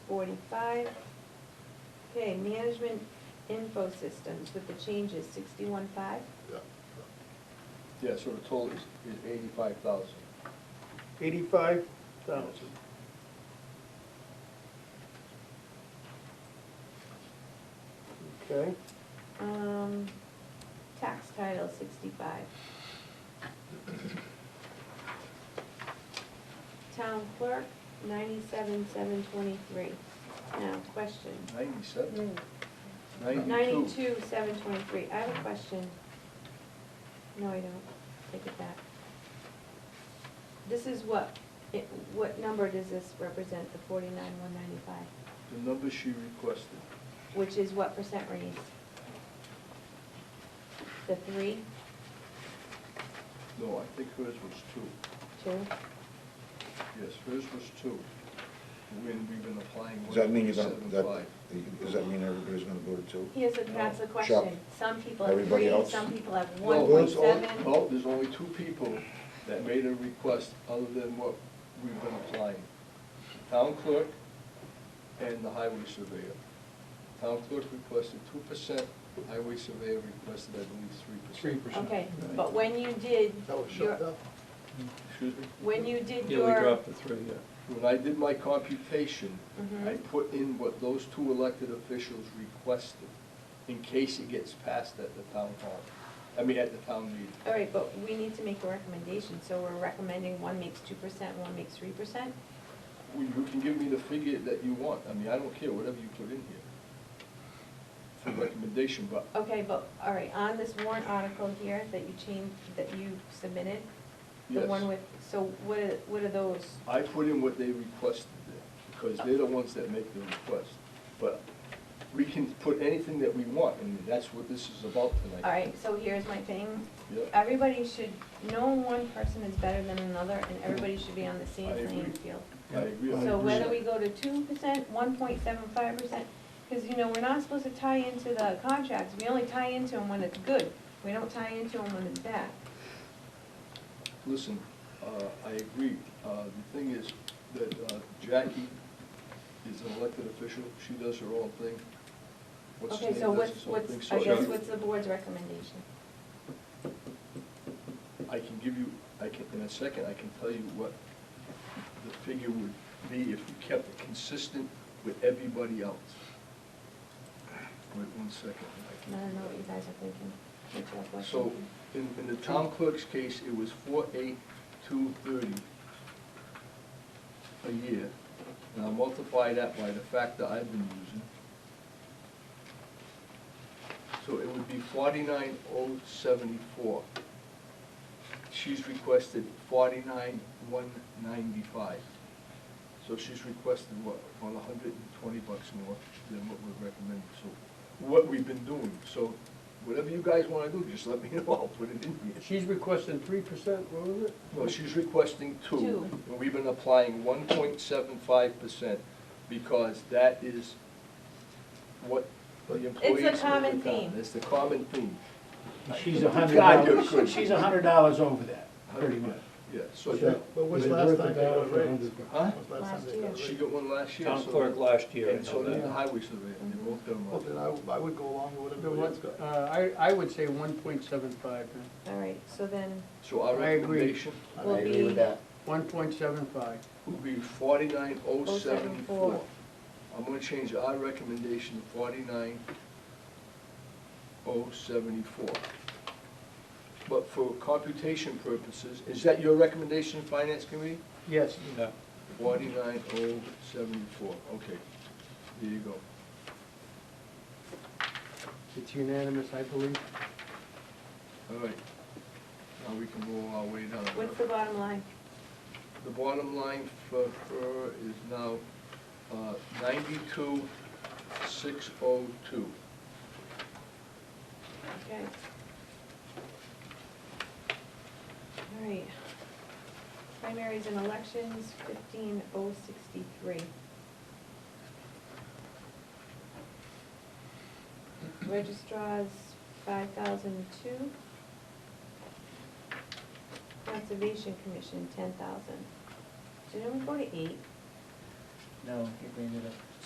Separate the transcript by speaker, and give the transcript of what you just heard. Speaker 1: forty-five. Okay, management info systems with the changes, sixty-one five?
Speaker 2: yeah.
Speaker 3: Yeah, so the total is, is eighty-five thousand.
Speaker 4: Eighty-five thousand. Okay,
Speaker 1: Um, tax title, sixty-five. Town clerk, ninety-seven seven twenty-three. Now, question.
Speaker 3: Ninety-seven? Ninety-two.
Speaker 1: Ninety-two seven twenty-three, I have a question. No, I don't, take it back. This is what, it, what number does this represent, the forty-nine one ninety-five,
Speaker 3: The number she requested.
Speaker 1: which is what percent raise? The three,
Speaker 3: No, I think hers was two.
Speaker 1: two?
Speaker 3: Yes, hers was two. When we've been applying.
Speaker 5: Does that mean you're gonna, that,
Speaker 3: 1.75.
Speaker 5: does that mean everybody's gonna go to two?
Speaker 1: Here's, the- that's the
Speaker 3: No.
Speaker 1: question,
Speaker 5: Chuck.
Speaker 1: some people have
Speaker 5: Everybody
Speaker 1: three,
Speaker 5: else?
Speaker 1: some people have
Speaker 3: No,
Speaker 1: one point
Speaker 3: there's only-
Speaker 1: seven.
Speaker 3: No, there's only two people that made a request other than what we've been applying. Town clerk and the highway surveyor. Town clerk requested two percent, highway surveyor requested, I believe, three
Speaker 4: three
Speaker 3: percent.
Speaker 4: percent.
Speaker 1: Okay, but when you did
Speaker 2: That was
Speaker 1: your,
Speaker 2: shut down.
Speaker 3: Excuse me?
Speaker 1: when you did
Speaker 6: Yeah, we
Speaker 1: your,
Speaker 6: dropped the three, yeah.
Speaker 3: When I did my computation,
Speaker 1: Mhm.
Speaker 3: I put in what those two elected officials requested in case it gets passed at the town hall, I mean, at the town meeting.
Speaker 1: all right, but we need to make a recommendation, so we're recommending one makes two percent, one makes three percent?
Speaker 3: Well, You can give me the figure that you want, I mean, I don't care, whatever you put in here. For recommendation, but
Speaker 1: Okay, but, all right, on this warrant article here that you changed, that you submitted, the
Speaker 3: Yes.
Speaker 1: one with, so what are, what are those?
Speaker 3: I put in what they requested there, because they're the ones that make the request. But we can put anything that we want, and that's what this is about tonight.
Speaker 1: All right, so here's my thing,
Speaker 3: Yep.
Speaker 1: everybody should, no one person is better than another, and everybody should be on the same
Speaker 3: I agree.
Speaker 1: playing field.
Speaker 3: I agree.
Speaker 1: So whether we go to two percent, one point seven five percent, because, you know, we're not supposed to tie into the contracts, we only tie into them when it's good, we don't tie into them when it's bad.
Speaker 3: Listen, uh, I agree. Uh, The thing is that uh, Jackie is an elected official, she does her own thing. What's his
Speaker 1: Okay, so
Speaker 3: name does
Speaker 1: what's,
Speaker 3: his own thing.
Speaker 1: what's,
Speaker 3: So
Speaker 1: I guess,
Speaker 3: you-
Speaker 1: what's the board's recommendation?
Speaker 3: I can give you, I can, in a second, I can tell you what the figure would be if you kept it consistent with everybody else. Wait one second. I
Speaker 1: I
Speaker 3: can-
Speaker 1: don't know what you guys are thinking, what you have left
Speaker 3: So,
Speaker 1: open.
Speaker 3: in, in the town clerk's case, it was four eight two thirty a year. And I multiply that by the factor I've been using. So it would be forty-nine oh seventy-four. She's requested forty-nine one ninety-five. So she's requested what, about hundred and twenty bucks more than what we're recommending, so, what we've been doing, so whatever you guys wanna do, just let me know, I'll put it in here.
Speaker 4: She's requesting three percent, what was it?
Speaker 3: No, she's requesting two,
Speaker 1: Two.
Speaker 3: and we've been applying one point seven five percent, because that is what the employees.
Speaker 1: It's a common
Speaker 3: of the town-
Speaker 1: theme.
Speaker 3: It's the common theme.
Speaker 7: She's a hundred
Speaker 3: God, you're good.
Speaker 7: dollars, she's a hundred dollars over that, pretty much.
Speaker 3: Yeah, so,
Speaker 2: Yeah,
Speaker 3: that-
Speaker 2: But what's
Speaker 7: They
Speaker 2: last
Speaker 7: broke it
Speaker 2: time they
Speaker 7: down
Speaker 2: got
Speaker 7: for a
Speaker 2: raised?
Speaker 7: hundred bucks.
Speaker 3: huh?
Speaker 2: What's last time they got
Speaker 1: Last
Speaker 3: She
Speaker 2: raised?
Speaker 3: got one last year.
Speaker 6: Town
Speaker 3: so-
Speaker 6: clerk last year, I
Speaker 3: And so
Speaker 6: know
Speaker 3: did the
Speaker 6: that.
Speaker 3: highway surveyor, and they both got them
Speaker 2: Well,
Speaker 3: up.
Speaker 2: then I, I would go along with
Speaker 4: The
Speaker 2: whatever
Speaker 4: one-
Speaker 2: everybody else got.
Speaker 4: Uh, I, I would say one point seven five,
Speaker 1: All right, so then,
Speaker 3: So our
Speaker 4: I agree.
Speaker 3: recommendation
Speaker 5: I
Speaker 1: Will
Speaker 5: agree
Speaker 1: be-
Speaker 5: with that.
Speaker 4: one point seven five.
Speaker 3: would be forty-nine oh
Speaker 1: 074.
Speaker 3: seventy-four. I'm gonna change our recommendation to forty-nine oh seventy-four. But for computation purposes, is that your recommendation, Finance Committee?
Speaker 4: Yes,
Speaker 6: Yeah.
Speaker 3: Forty-nine oh seventy-four, okay, there you go.
Speaker 4: it's unanimous, I believe.
Speaker 3: All right, now we can roll our way down.
Speaker 1: what's the bottom line?
Speaker 3: The bottom line for her is now uh, ninety-two, six oh two.
Speaker 1: Okay. All right. Primaries and elections, fifteen oh sixty-three. Registrars, five thousand two. Conservation Commission, ten thousand. Did anyone go to eight?
Speaker 7: No, you bring it up.